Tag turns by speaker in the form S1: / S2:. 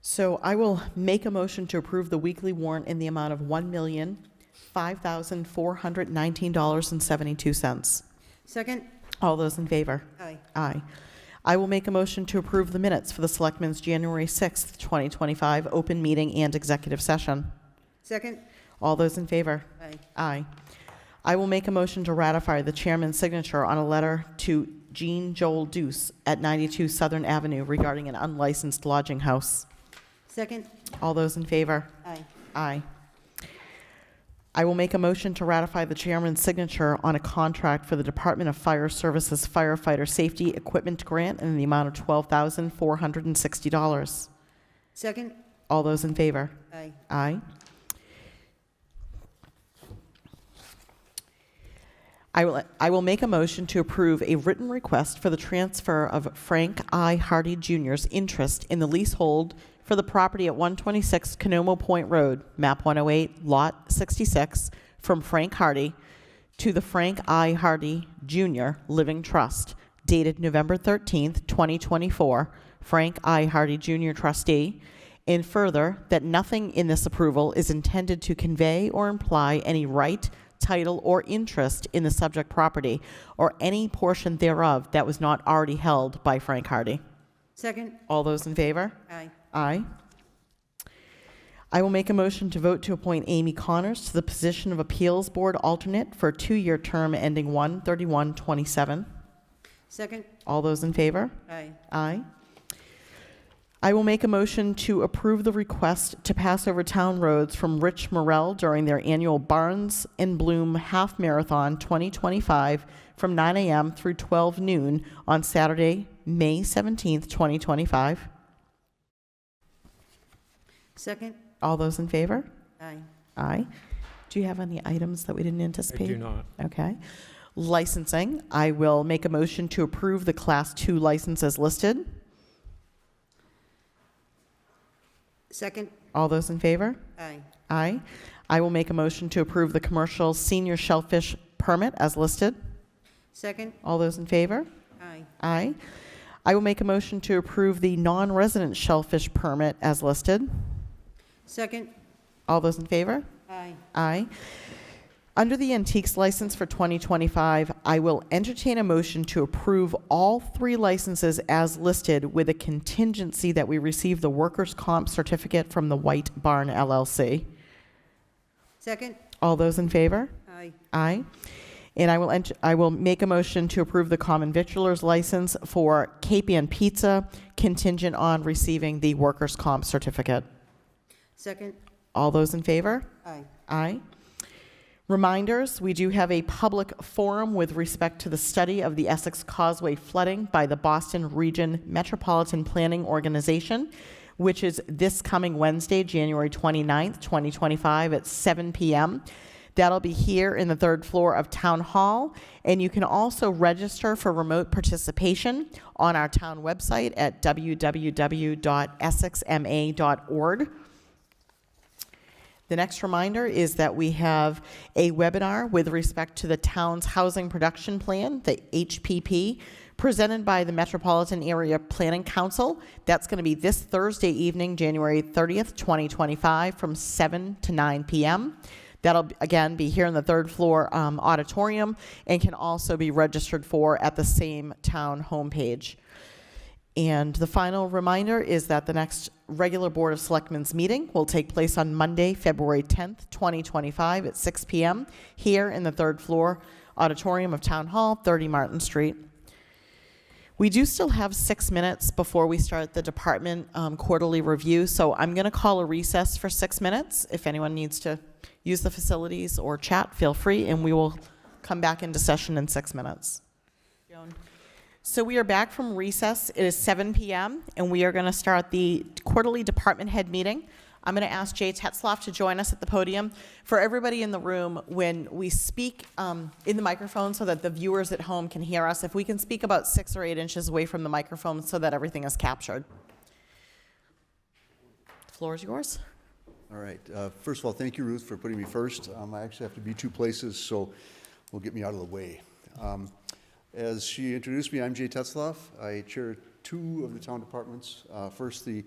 S1: So I will make a motion to approve the weekly warrant in the amount of $1,005,419.72.
S2: Second?
S1: All those in favor?
S2: Aye.
S1: Aye. I will make a motion to approve the minutes for the Selectmen's January 6th, 2025, open meeting and executive session.
S2: Second?
S1: All those in favor?
S2: Aye.
S1: Aye. I will make a motion to ratify the chairman's signature on a letter to Jean Joel Deuce at 92 Southern Avenue regarding an unlicensed lodging house.
S2: Second?
S1: All those in favor?
S2: Aye.
S1: Aye. I will make a motion to ratify the chairman's signature on a contract for the Department of Fire Services firefighter safety equipment grant in the amount of $12,460.
S2: Second?
S1: All those in favor?
S2: Aye.
S1: Aye. I will, I will make a motion to approve a written request for the transfer of Frank I. Hardy Jr.'s interest in the leasehold for the property at 126 Canomo Point Road, map 108, lot 66, from Frank Hardy to the Frank I. Hardy Jr. Living Trust, dated November 13th, 2024, Frank I. Hardy Jr. trustee, and further, that nothing in this approval is intended to convey or imply any right, title, or interest in the subject property or any portion thereof that was not already held by Frank Hardy.
S2: Second?
S1: All those in favor?
S2: Aye.
S1: Aye. I will make a motion to vote to appoint Amy Connors to the position of Appeals Board alternate for a two-year term ending 1/31/27.
S2: Second?
S1: All those in favor?
S2: Aye.
S1: Aye. I will make a motion to approve the request to pass over town roads from Rich Morel during their annual Barnes and Bloom Half Marathon 2025 from 9 a.m. through 12 noon on Saturday, May 17th, 2025.
S2: Second?
S1: All those in favor?
S2: Aye.
S1: Aye. Do you have any items that we didn't
S3: I
S1: anticipate?
S3: do not.
S1: Okay. Licensing, I will make a motion to approve the Class 2 licenses listed.
S2: Second?
S1: All those in favor?
S2: Aye.
S1: Aye. I will make a motion to approve the commercial senior shellfish permit as listed.
S2: Second?
S1: All those in favor?
S2: Aye.
S1: Aye. I will make a motion to approve the non-resident shellfish permit as listed.
S2: Second?
S1: All those in favor?
S2: Aye.
S1: Aye. Under the antiques license for 2025, I will entertain a motion to approve all three licenses as listed with a contingency that we receive the workers' comp certificate from the White Barn LLC.
S2: Second?
S1: All those in favor?
S2: Aye.
S1: Aye. And I will, ent- I will make a motion to approve the common victualer's license for Capian Pizza contingent on receiving the workers' comp certificate.
S2: Second?
S1: All those in favor?
S2: Aye.
S1: Aye. Reminders, we do have a public forum with respect to the study of the Essex Causeway flooding by the Boston Region Metropolitan Planning Organization, which is this coming Wednesday, January 29th, 2025, at 7 p.m. That'll be here in the third floor of Town Hall. And you can also register for remote participation on our town website at www.essexma.org. The next reminder is that we have a webinar with respect to the town's housing production plan, the HPP, presented by the Metropolitan Area Planning Council. That's going to be this Thursday evening, January 30th, 2025, from 7 to 9 p.m. That'll, again, be here in the third floor um, auditorium and can also be registered for at the same town homepage. And the final reminder is that the next regular Board of Selectmen's meeting will take place on Monday, February 10th, 2025, at 6 p.m. here in the third floor auditorium of Town Hall, 30 Martin Street. We do still have six minutes before we start the department um, quarterly review, so I'm going to call a recess for six minutes. If anyone needs to use the facilities or chat, feel free, and we will come back into session in six minutes. So we are back from recess. It is 7 PM, and we are going to start the quarterly department head meeting. I'm going to ask Jay Tetzloff to join us at the podium. For everybody in the room, when we speak um, in the microphone so that the viewers at home can hear us, if we can speak about six or eight inches away from the microphone so that everything is captured. The Floor is yours.
S4: All right. Uh, First of all, thank you, Ruth, for putting me first. Um, I actually have to be two places, so will get me out of the way. Um, As she introduced me, I'm Jay Tetzloff. I chair two of the town departments. Uh, First, the